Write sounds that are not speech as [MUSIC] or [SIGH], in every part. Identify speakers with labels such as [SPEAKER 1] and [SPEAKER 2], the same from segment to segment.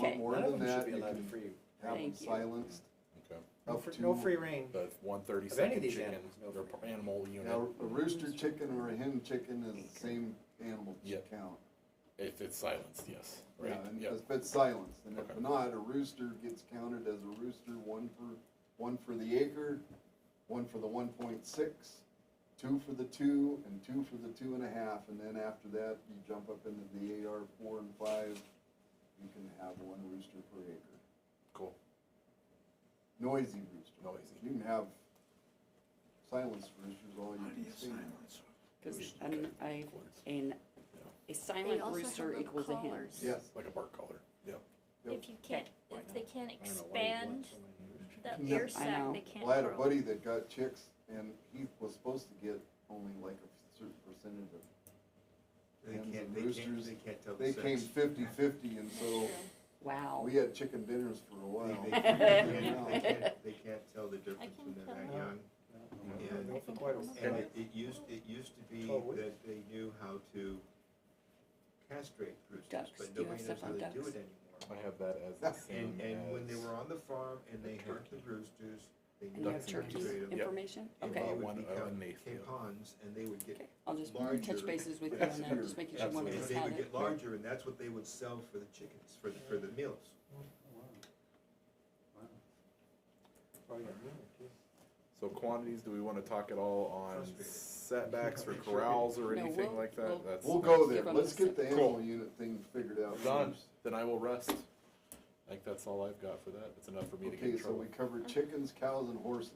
[SPEAKER 1] that,
[SPEAKER 2] should be
[SPEAKER 1] you
[SPEAKER 2] allowed
[SPEAKER 1] can
[SPEAKER 2] free.
[SPEAKER 1] have them
[SPEAKER 3] Thank you.
[SPEAKER 1] silenced.
[SPEAKER 4] Okay.
[SPEAKER 2] No,
[SPEAKER 1] up
[SPEAKER 2] fr-
[SPEAKER 1] to-
[SPEAKER 2] no free reign.
[SPEAKER 4] The one thirty
[SPEAKER 2] Of any of
[SPEAKER 4] second
[SPEAKER 2] these
[SPEAKER 4] chicken,
[SPEAKER 2] animals, no
[SPEAKER 4] their
[SPEAKER 2] free.
[SPEAKER 4] per- animal unit,
[SPEAKER 1] Now, a rooster chicken or a hen chicken is the same animal ch-
[SPEAKER 4] Yep.
[SPEAKER 1] count.
[SPEAKER 4] if it's silenced, yes,
[SPEAKER 1] Yeah,
[SPEAKER 4] right?
[SPEAKER 1] and
[SPEAKER 4] Yeah,
[SPEAKER 1] If it's silenced, and if
[SPEAKER 4] Okay.
[SPEAKER 1] not, a rooster gets counted as a rooster, one for, one for the acre, one for the one point six, two for the two, and two for the two and a half, and then after that, you jump up into the AR four and five, you can have one rooster per acre.
[SPEAKER 4] cool.
[SPEAKER 1] Noisy rooster.
[SPEAKER 4] Noisy.
[SPEAKER 1] You can have silenced roosters all you can see.
[SPEAKER 3] Because I, and a
[SPEAKER 5] They
[SPEAKER 3] silent
[SPEAKER 5] also
[SPEAKER 3] rooster
[SPEAKER 5] have the
[SPEAKER 3] equals a hen.
[SPEAKER 5] collars.
[SPEAKER 1] Yes,
[SPEAKER 4] Like a bark collar, yeah.
[SPEAKER 1] Yep.
[SPEAKER 5] If you can't,
[SPEAKER 4] Why
[SPEAKER 5] if they can't
[SPEAKER 4] I don't know why you'd want
[SPEAKER 5] expand
[SPEAKER 4] so many roosters.
[SPEAKER 5] the
[SPEAKER 1] No.
[SPEAKER 5] air
[SPEAKER 3] I know.
[SPEAKER 5] sac, they can't
[SPEAKER 1] Well, I had a
[SPEAKER 5] grow.
[SPEAKER 1] buddy that got chicks, and he was supposed to get only like a certain percentage of.
[SPEAKER 6] They
[SPEAKER 1] hens
[SPEAKER 6] can't,
[SPEAKER 1] and
[SPEAKER 6] they can't,
[SPEAKER 1] roosters.
[SPEAKER 6] they can't tell the
[SPEAKER 1] They
[SPEAKER 6] sex.
[SPEAKER 1] came fifty-fifty, and so
[SPEAKER 3] Wow.
[SPEAKER 1] we had chicken dinners for a
[SPEAKER 6] They-
[SPEAKER 1] while.
[SPEAKER 6] They
[SPEAKER 1] Yeah,
[SPEAKER 6] can't- they
[SPEAKER 1] now,
[SPEAKER 3] [LAUGHS]
[SPEAKER 6] can't- they can't- they can't tell the difference
[SPEAKER 5] can
[SPEAKER 6] when they're
[SPEAKER 5] tell.
[SPEAKER 6] that
[SPEAKER 2] No.
[SPEAKER 6] young.
[SPEAKER 2] No,
[SPEAKER 6] And,
[SPEAKER 2] no, for quite a
[SPEAKER 6] and
[SPEAKER 2] while.
[SPEAKER 6] it, it used, it used to be
[SPEAKER 2] Oh, we-
[SPEAKER 6] that they knew how to castrate roosters,
[SPEAKER 3] Ducks, do
[SPEAKER 6] but
[SPEAKER 3] you
[SPEAKER 6] nobody
[SPEAKER 3] have
[SPEAKER 6] knows
[SPEAKER 3] stuff
[SPEAKER 6] how
[SPEAKER 3] on
[SPEAKER 6] to do
[SPEAKER 3] ducks?
[SPEAKER 6] it anymore.
[SPEAKER 4] I have that as the same
[SPEAKER 6] And, and when they
[SPEAKER 4] as-
[SPEAKER 6] were on the farm and they had the roosters, they
[SPEAKER 3] And you
[SPEAKER 6] knew how
[SPEAKER 3] have
[SPEAKER 4] Duck
[SPEAKER 6] to
[SPEAKER 3] turkey
[SPEAKER 6] castrate them.
[SPEAKER 4] Yep.
[SPEAKER 3] information?
[SPEAKER 6] And
[SPEAKER 3] Okay,
[SPEAKER 6] they
[SPEAKER 4] Uh,
[SPEAKER 6] would
[SPEAKER 4] one, uh,
[SPEAKER 6] become
[SPEAKER 4] and they failed.
[SPEAKER 6] capons and they would
[SPEAKER 3] okay.
[SPEAKER 6] get,
[SPEAKER 3] I'll just touch
[SPEAKER 6] larger-
[SPEAKER 3] bases with you on that, just making sure
[SPEAKER 4] That's
[SPEAKER 3] one of
[SPEAKER 4] here.
[SPEAKER 6] and
[SPEAKER 3] us
[SPEAKER 6] they
[SPEAKER 3] had
[SPEAKER 6] would
[SPEAKER 3] it.
[SPEAKER 6] get larger and that's what they would sell for the chickens, for, the for the meals.
[SPEAKER 2] Oh, yeah, too.
[SPEAKER 4] So quantities, do we wanna talk at all on
[SPEAKER 6] Frustrating.
[SPEAKER 4] setbacks or
[SPEAKER 6] Make sure we-
[SPEAKER 4] corrals or
[SPEAKER 3] No,
[SPEAKER 4] anything
[SPEAKER 3] we'll-
[SPEAKER 4] like
[SPEAKER 3] we'll-
[SPEAKER 4] that? That's
[SPEAKER 1] We'll go
[SPEAKER 3] Give
[SPEAKER 1] there,
[SPEAKER 3] them
[SPEAKER 1] let's
[SPEAKER 3] the
[SPEAKER 1] get the
[SPEAKER 4] sip.
[SPEAKER 1] animal unit thing figured out
[SPEAKER 4] Done,
[SPEAKER 1] first.
[SPEAKER 4] then I will rest. I think that's all I've got for that, that's enough for me to get
[SPEAKER 1] Okay,
[SPEAKER 4] in
[SPEAKER 1] so
[SPEAKER 4] trouble.
[SPEAKER 1] we covered chickens, cows, and horses.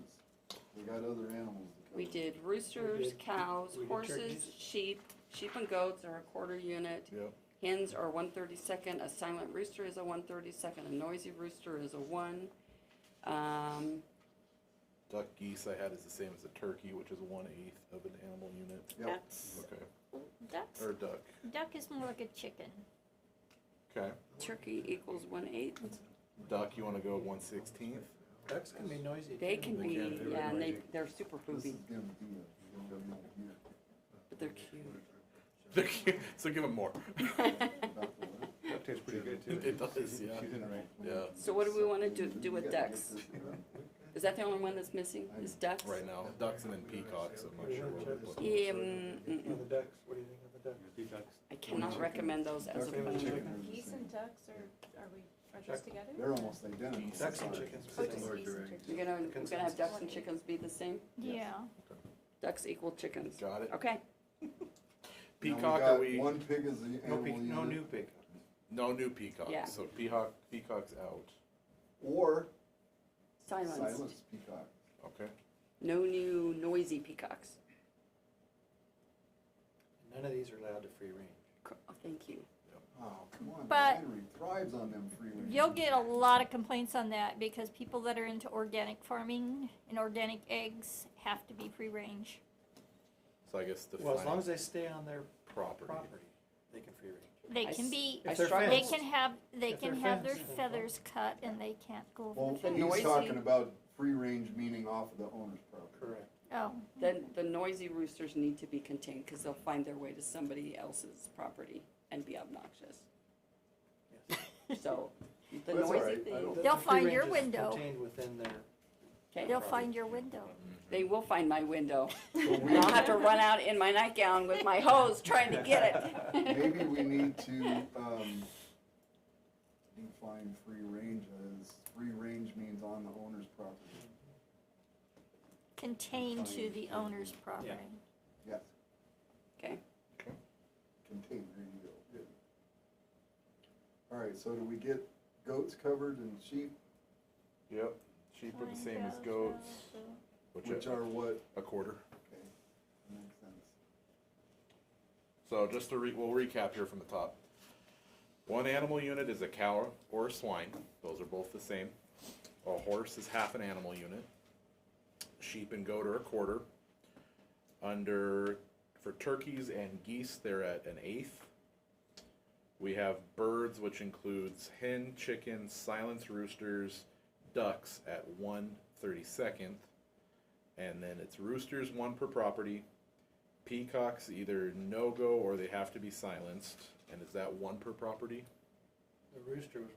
[SPEAKER 1] We got other animals to cover.
[SPEAKER 3] We did roosters,
[SPEAKER 2] did-
[SPEAKER 3] cows,
[SPEAKER 2] we did
[SPEAKER 3] horses,
[SPEAKER 2] turkeys.
[SPEAKER 3] sheep, sheep and goats are a quarter unit.
[SPEAKER 4] Yep,
[SPEAKER 3] Hens are one thirty-second, a silent rooster is a one thirty-second, a noisy rooster is a one. Um,
[SPEAKER 4] duck geese I had is the same as a turkey, which is one eighth of an animal unit.
[SPEAKER 1] Yep.
[SPEAKER 3] that's,
[SPEAKER 4] Okay,
[SPEAKER 5] Ducks,
[SPEAKER 4] or duck,
[SPEAKER 5] duck is more like a chicken.
[SPEAKER 4] okay.
[SPEAKER 3] turkey equals one eighth.
[SPEAKER 4] Duck, you wanna go one sixteenth?
[SPEAKER 2] Ducks can be noisy.
[SPEAKER 3] They
[SPEAKER 2] too.
[SPEAKER 3] can
[SPEAKER 4] They
[SPEAKER 3] be,
[SPEAKER 4] can be
[SPEAKER 3] yeah, and they,
[SPEAKER 4] noisy.
[SPEAKER 3] they're super
[SPEAKER 1] This
[SPEAKER 3] poopy,
[SPEAKER 1] is gonna be a- gonna be a year.
[SPEAKER 3] but they're cute.
[SPEAKER 4] [LAUGHS] So give them more. [LAUGHS]
[SPEAKER 1] About the what?
[SPEAKER 7] That tastes pretty good too.
[SPEAKER 4] It does, yeah,
[SPEAKER 7] She's in the right.
[SPEAKER 4] yeah,
[SPEAKER 3] So what do we wanna do, do
[SPEAKER 1] We
[SPEAKER 3] with
[SPEAKER 1] gotta get
[SPEAKER 3] ducks?
[SPEAKER 1] this done.
[SPEAKER 3] Is that the only one that's missing, is ducks?
[SPEAKER 4] right now, ducks and then peacocks, I'm not sure what we're looking.
[SPEAKER 3] Yeah, mm,
[SPEAKER 2] Now
[SPEAKER 3] mm,
[SPEAKER 2] the ducks, what do you think of the ducks?
[SPEAKER 3] I cannot recommend those as a
[SPEAKER 1] Duck and
[SPEAKER 2] plan.
[SPEAKER 1] chicken
[SPEAKER 3] plan.
[SPEAKER 1] are the
[SPEAKER 8] Geese
[SPEAKER 1] same.
[SPEAKER 8] and ducks are, are we, are those together?
[SPEAKER 1] They're almost identical.
[SPEAKER 4] Geese.
[SPEAKER 2] Ducks and chickens.
[SPEAKER 8] Oh,
[SPEAKER 2] are
[SPEAKER 8] just
[SPEAKER 2] similar.
[SPEAKER 8] geese and
[SPEAKER 6] direct.
[SPEAKER 3] You're
[SPEAKER 8] turkeys.
[SPEAKER 3] gonna, we're gonna have ducks and chickens be the same?
[SPEAKER 5] Yeah.
[SPEAKER 3] Ducks equal chickens.
[SPEAKER 4] Got it?
[SPEAKER 3] Okay,
[SPEAKER 1] Now we
[SPEAKER 4] Peacock,
[SPEAKER 1] got
[SPEAKER 4] are we,
[SPEAKER 1] One pig is the
[SPEAKER 2] No,
[SPEAKER 1] animal
[SPEAKER 2] pe- no
[SPEAKER 1] unit.
[SPEAKER 2] new pig.
[SPEAKER 4] no new
[SPEAKER 3] Yeah.
[SPEAKER 4] peacocks, so peacock, peacock's out,
[SPEAKER 1] Or
[SPEAKER 3] silence.
[SPEAKER 1] silenced peacock.
[SPEAKER 4] okay?
[SPEAKER 3] No new noisy peacocks.
[SPEAKER 2] None of these are allowed to free range.
[SPEAKER 3] Cr- Oh, thank you.
[SPEAKER 1] Oh, come on,
[SPEAKER 5] But-
[SPEAKER 1] Henry thrives on them free range.
[SPEAKER 5] You'll get a lot of complaints on that because people that are into organic farming and organic eggs have to be free-range.
[SPEAKER 4] So I guess the
[SPEAKER 2] Well, as long
[SPEAKER 4] final
[SPEAKER 2] as they stay on their
[SPEAKER 4] property.
[SPEAKER 2] property, they can free range.
[SPEAKER 5] They
[SPEAKER 3] I
[SPEAKER 5] can
[SPEAKER 3] s-
[SPEAKER 5] be,
[SPEAKER 3] I
[SPEAKER 2] If they're
[SPEAKER 3] struggled.
[SPEAKER 5] they can have, they
[SPEAKER 2] If they're
[SPEAKER 5] can have their
[SPEAKER 2] fenced, then-
[SPEAKER 5] feathers cut and they can't go over
[SPEAKER 1] Well,
[SPEAKER 5] the fence.
[SPEAKER 1] he's
[SPEAKER 3] noisy-
[SPEAKER 1] talking about free range meaning off of the owner's property.
[SPEAKER 2] Correct.
[SPEAKER 5] Oh,
[SPEAKER 3] Then the noisy roosters need to be contained because they'll find their way to somebody else's property and be obnoxious.
[SPEAKER 5] [LAUGHS]
[SPEAKER 3] So the
[SPEAKER 1] That's all
[SPEAKER 3] noisy
[SPEAKER 1] right. I
[SPEAKER 3] thing,
[SPEAKER 1] don't-
[SPEAKER 2] The-
[SPEAKER 5] They'll
[SPEAKER 2] the free
[SPEAKER 5] find your
[SPEAKER 2] range is
[SPEAKER 5] window.
[SPEAKER 2] Contained within their.
[SPEAKER 3] okay,
[SPEAKER 5] they'll find your window.
[SPEAKER 3] they will find my window.
[SPEAKER 1] So
[SPEAKER 3] And I'll have to run out in my nightgown with my hose trying to get
[SPEAKER 1] we-
[SPEAKER 3] it.
[SPEAKER 1] Maybe
[SPEAKER 3] [LAUGHS]
[SPEAKER 1] we need to, um, define free range as, free range means on the owner's property.
[SPEAKER 5] [LAUGHS] Contained to the owner's property.
[SPEAKER 1] Yes,
[SPEAKER 3] Okay,
[SPEAKER 1] contained, there you go, good. All right, so do we get goats covered and sheep,
[SPEAKER 4] Yep, sheep are the same as goats,
[SPEAKER 1] which
[SPEAKER 4] which are
[SPEAKER 1] are what?
[SPEAKER 4] a quarter.
[SPEAKER 1] Okay, makes sense.
[SPEAKER 4] So just to re, we'll recap here from the top. One animal unit is a cow or a swine, those are both the same. A horse is half an animal unit. Sheep and goat are a quarter. Under, for turkeys and geese, they're at an eighth. We have birds, which includes hen, chicken, silence roosters, ducks at one thirty-second. And then it's roosters, one per property, Peacocks either no go or they have to be silenced. And is that one per property?
[SPEAKER 2] The rooster was